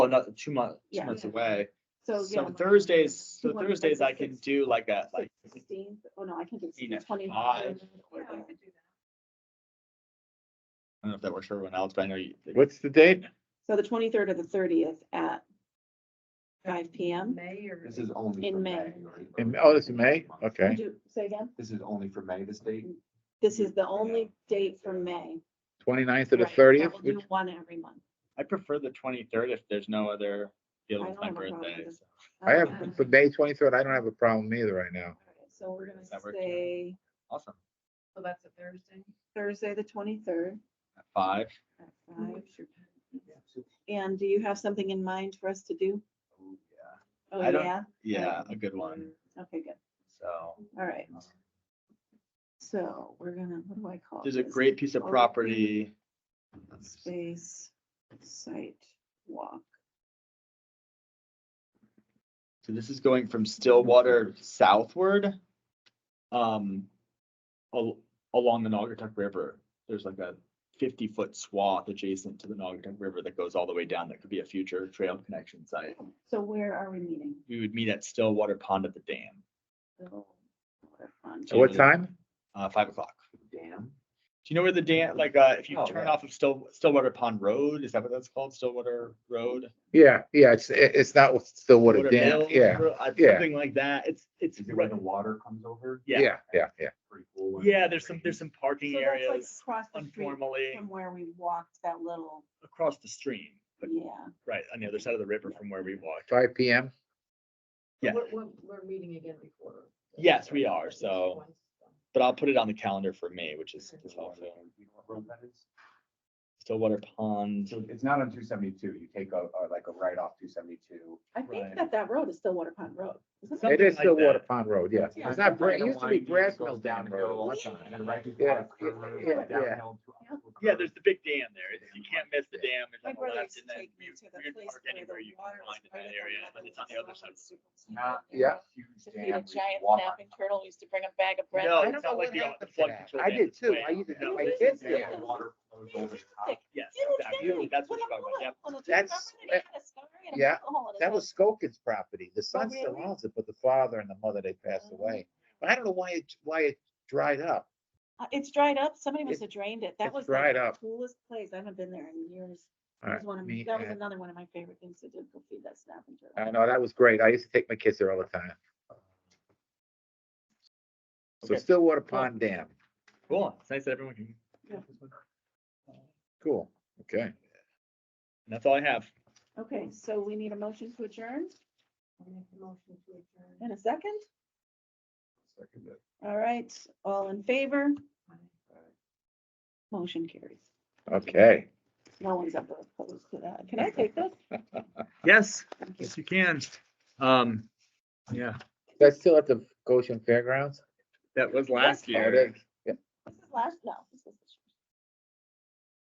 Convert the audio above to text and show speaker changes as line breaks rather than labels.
another Oh, two months, two
Yeah.
months away.
So. yeah,
So
like-
Thursdays,
Do
so
you want, like,
Thursdays
the
I can do like a, like,
16th? Oh, no, I can do
Seen at
twenty.
five.
or like-
I don't know if that works for everyone else, but I know you.
What's the date?
So the twenty-third or the thirtieth at five P M.
May or.
This is only.
In
for
May.
right?
In- oh, this is May? Okay.
Say again,
This is only for May, this date?
this is the only date for May.
29th to the
Right, so
thirtieth?
we'll do One every month.
I prefer the twenty-third if there's no other deal
I
with
don't
my
have a problem
birthday.
with
so.
I have,
Um,
for May twenty-third, I don't have a problem either right now.
alright, So we're gonna
Does that work?
say
Awesome.
So Oh, that's a Thursday.
Thursday, the twenty-third
At Five.
at
Mhm.
five. And do you have something in mind for us to do?
Oh, yeah.
Oh,
I don't-
yeah?
Yeah, a good one.
Okay, good.
So
All right. So we're gonna, what do I call?
there's a
this?
great piece of property.
Space site walk.
So this is going from Stillwater southward. Um, al- along the Naugatuck River, there's like a fifty-foot swath adjacent to the Naugatuck River that goes all the way down. That could be a future trail connection site.
So where are we meeting?
We would meet at Stillwater Pond at the dam,
So, what a fun-
At what time?
uh, five o'clock.
Damn.
Do you know where the dam, like, uh, if you
Oh,
turn
yeah.
off of Still, Stillwater Pond Road, is that what that's called? Stillwater Road?
Yeah, yeah, it's, it- it's not with Stillwater
Stillwater
Dam.
Mills
Yeah,
Road, uh,
yeah.
Something like that. It's, it's,
Is it
right-
when the water comes over?
yeah,
yeah, yeah, yeah.
Pretty cool one.
yeah, there's some, there's some
So
parking
that's like
areas
across the street
informally
from where we walked that little,
across the stream, but
yeah.
right on the other side of the river from where we walked.
Five P M.
Yeah.
We're, we're, we're meeting again before.
Yes, we are, so- But I'll put it on the calendar for May, which is
There's
is
a lot
also
of- you know what road that is?
Stillwater Pond.
So it's not on two seventy-two, you take a, a- like a right off two seventy-two.
I
Right.
think that that road is still Water Pond Road. isn't it?
Something
It is
like
Stillwater
that.
Pond Road, yeah.
Yeah.
It's not, Bra- it used to be Grass Mills Dam Road.
Downhill,
at one
and
time.
then right.
Yeah,
before the curve,
yeah, yeah.
downhill to-
Yeah, there's the big dam there. It's- You can't miss the dam. It's
My
on the
brother
left
used
and
to
then
take me
you
to
you
the
can
place
park
where the
anywhere you
water
can
was
find in that
right up
area,
on
but
the
it's on the other side. of the-
Not a
Yeah.
huge
To feed a
dam, we can
giant
walk
snapping turtle, used to bring him bag of bread.
No,
I
it's
don't
not Oh,
know
like
what
the, the
happened to
flood
that.
control.
I
dam.
did
It's
too.
way
I
out.
used to
No,
take my
it's-
kids there.
Yeah, the water flows over the top.
Yes,
Yes, exactly. That's what you're talking about. Yep.
That's- yeah, That was Skokin's property. The
Oh,
son
really? Oh,
still owns it, but the father and the mother, they passed away. But I don't know why it, why it dried up.
Uh, It's dried up. Somebody must
It-
have drained it. That
it's
was
dried
the
up.
coolest place. I haven't been there in years. That
All
was one of,
me
that was
and- Uh,
another one of my favorite things to do, go feed that snapping turtle.
I know, that was great. I used to take my kids there all the time. So
Okay.
Stillwater Pond Dam,
Cool. It's nice that everyone can.
Yeah.
And
cool, okay.
that's all I have.
Okay, so we need a motion to adjourn
I'll make a motion to adjourn.
in a second.
Second bit.
All right, all in favor? Motion carries.
Okay.
No one's ever opposed to that. Can I take this?
Yes, yes, you can. Um, yeah,
That's still at the Goshen Fairgrounds?
that was
Oh, it is.
This is last, no,